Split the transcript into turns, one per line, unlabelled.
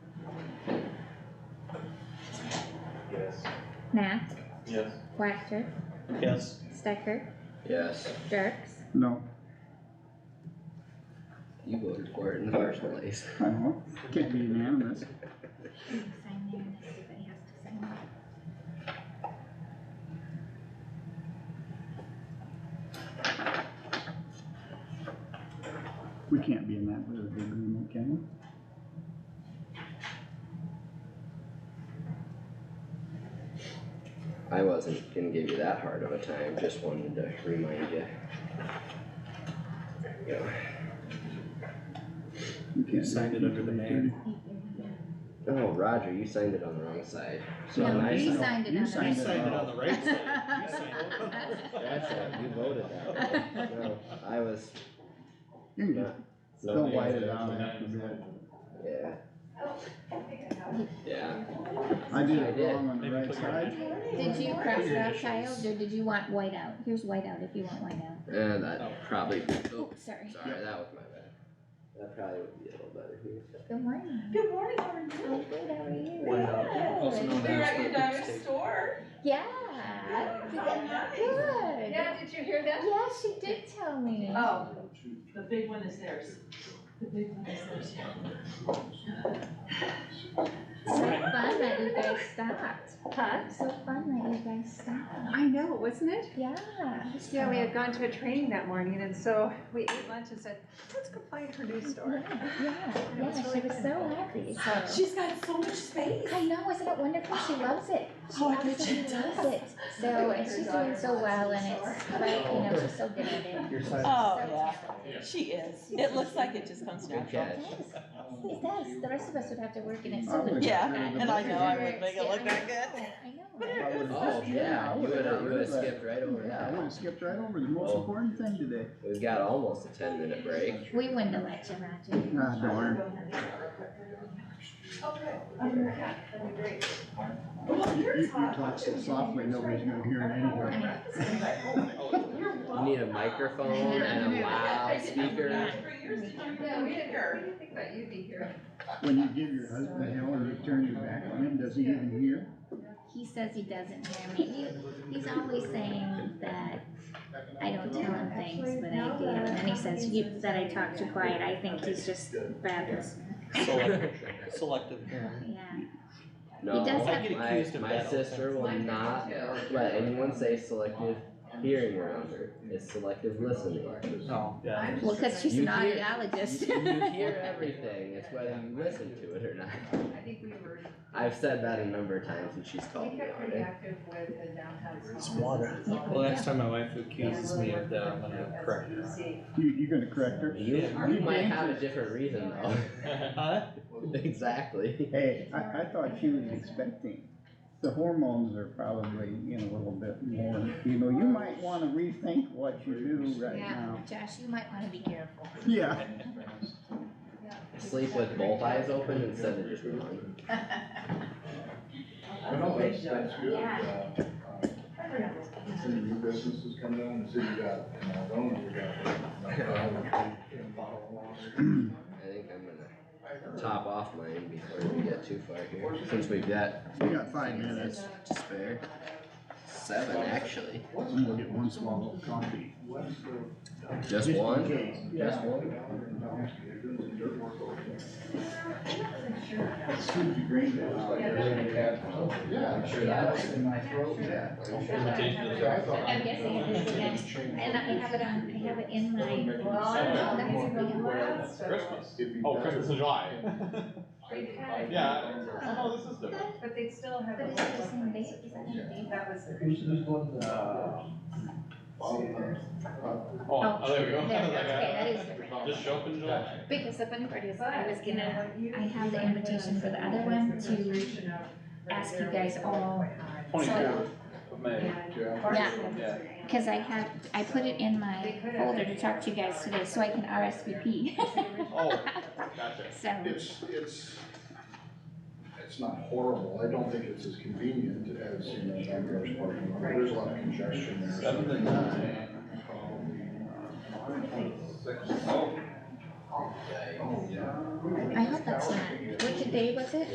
Nath,
Yes.
Whacker,
Yes.
Stecker,
Yes,
Jerks,
No,
you voted for it in the first place.
I don't, can't be unanimous.
Sign there and everybody has to sign it.
We can't be in that with the agreement, can we?
I wasn't gonna give you that hard of a time, just wanted to remind you. There you go.
We can't do
signed it under the mayor.
Oh, Roger, you signed it on the wrong side.
So
No,
I
you
signed-
signed it
you
on the
signed
right
it
it
all.
on the right side. You signed it on the left.
That's it, you voted that way. No, I was,
You can just,
No,
They'll
the
white
other
it out
one.
after that.
yeah. Yeah,
I did
I
it
did.
wrong on the
Maybe
right
put your
side.
Did you cross it
Your
out,
initials.
Kyle, or did you want white out? Here's white out if you want white out.
and that probably, oh,
Oops, sorry.
sorry, that was my bad. That probably would be a little better here.
Good morning.
Good morning, how are
Oh,
you?
good, how are you?
Also known
We were at your
as the
daughter's
state.
store.
Yeah.
How nice.
Good.
Yeah, did you hear that?
Yeah, she did tell me.
Oh, the big one is theirs. The big one is theirs.
So fun that you guys stopped.
Huh?
So fun that you guys stopped.
I know, wasn't it?
Yeah.
Yeah, we had gone to a training that morning and so we ate lunch and said, let's go find her new store.
Yeah, yeah, yeah, she was so happy, so.
She's got so much space.
I know, isn't it wonderful? She loves it. She
Oh, I bet she
absolutely loves
does.
it. So, and she's doing so well and it's, right, you know, she's so good at it.
Oh,
So
yeah,
talented.
she is. It looks like it just comes
Good
natural.
catch.
It does, the rest of us would have to work in it.
I would've
Yeah,
got rid of the
And I know I
budget.
would make it look that good.
I know, right?
I would've-
Oh, yeah,
I
you
would've
would
got
have, you
rid
would have
of that.
skipped right over
Yeah, I would've
that.
skipped right over the most
Oh.
important thing today.
We've got almost a ten minute break.
We wouldn't have let you, Roger.
Ah, darn. You, you you talk so softly, nobody's gonna hear it
I
anyway.
mean,
You need a microphone and a loudspeaker.
Yeah, we didn't hear.
When you give your husband hell and you turn your back on him, does he even hear?
he says he doesn't hear me. He, he's always saying that I don't tell him things, but I do. And then he says you, that I talk too quiet. I think he's just bad listener.
Selective, selective hearing.
Yeah.
No,
He does
I get
my,
accused of
my
that all the
sister
time.
will not let anyone say selective hearing around her. It's selective listening.
No, yeah.
Well, because she's
You
an
hear-
audiologist.
You you hear everything, it's whether you listen to it or not.
I think we were,
I've said that a number of times and she's called
we
me
got
on
pretty
it.
active with the downtown.
Where's
small
water?
business
Well,
development.
next time my wife
And
accuses
really
me of
worked
that,
with
I'm
them
gonna
as
correct
you
her.
see.
You, you gonna correct her?
You, you might have a different reason though.
Huh?
Exactly.
Hey, I, I thought she was expecting. The hormones are probably in a little bit more, you know, you might wanna rethink what you do right
Yeah.
now.
Josh, you might want to be careful.
Yeah,
Sleep with both eyes open instead of just one.
I know, that's, that's good,
Yeah.
uh, uh, see new businesses come down, the city got, and I don't know, we got. uh,
I think I'm gonna top off mine before we get too far here, since we've got
we got five minutes.
to spare. Seven, actually.
I'm gonna get one swallow of coffee.
What's
Just
in
one?
case.
the?
Just one?
one? Scoop the green. Yeah, I'm sure that was in my throat, yeah.
I'm guessing it is again. And I have it on, I have it in my, well, I don't know, that's a big one.
Christmas.
If you-
Oh, Christmas in July.
We've had-
Yeah, I
Oh,
know, this is different.
But they still have.
But is it the same date? Is that the date?
That was. the-
Uh,
Uh,
Oh, oh, there we go.
There, okay, that is different.
Just show up in July.
Because the funny part is,
But,
I was
you know,
gonna
what you-
I have the invitation for the other one to ask you guys all.
Twenty-fourth of May.
Yeah.
Jeff,
Yeah. Cause I have, I put it in my folder to talk to you guys today, so I can RSVP,
Oh, gotcha.
so.
It's, it's, it's not horrible, I don't think it's as convenient as, you know, Ambrose Park, there's a lot of congestion there. so-
Seven to nine.
Probably, uh,
I hope that's not, which day was it?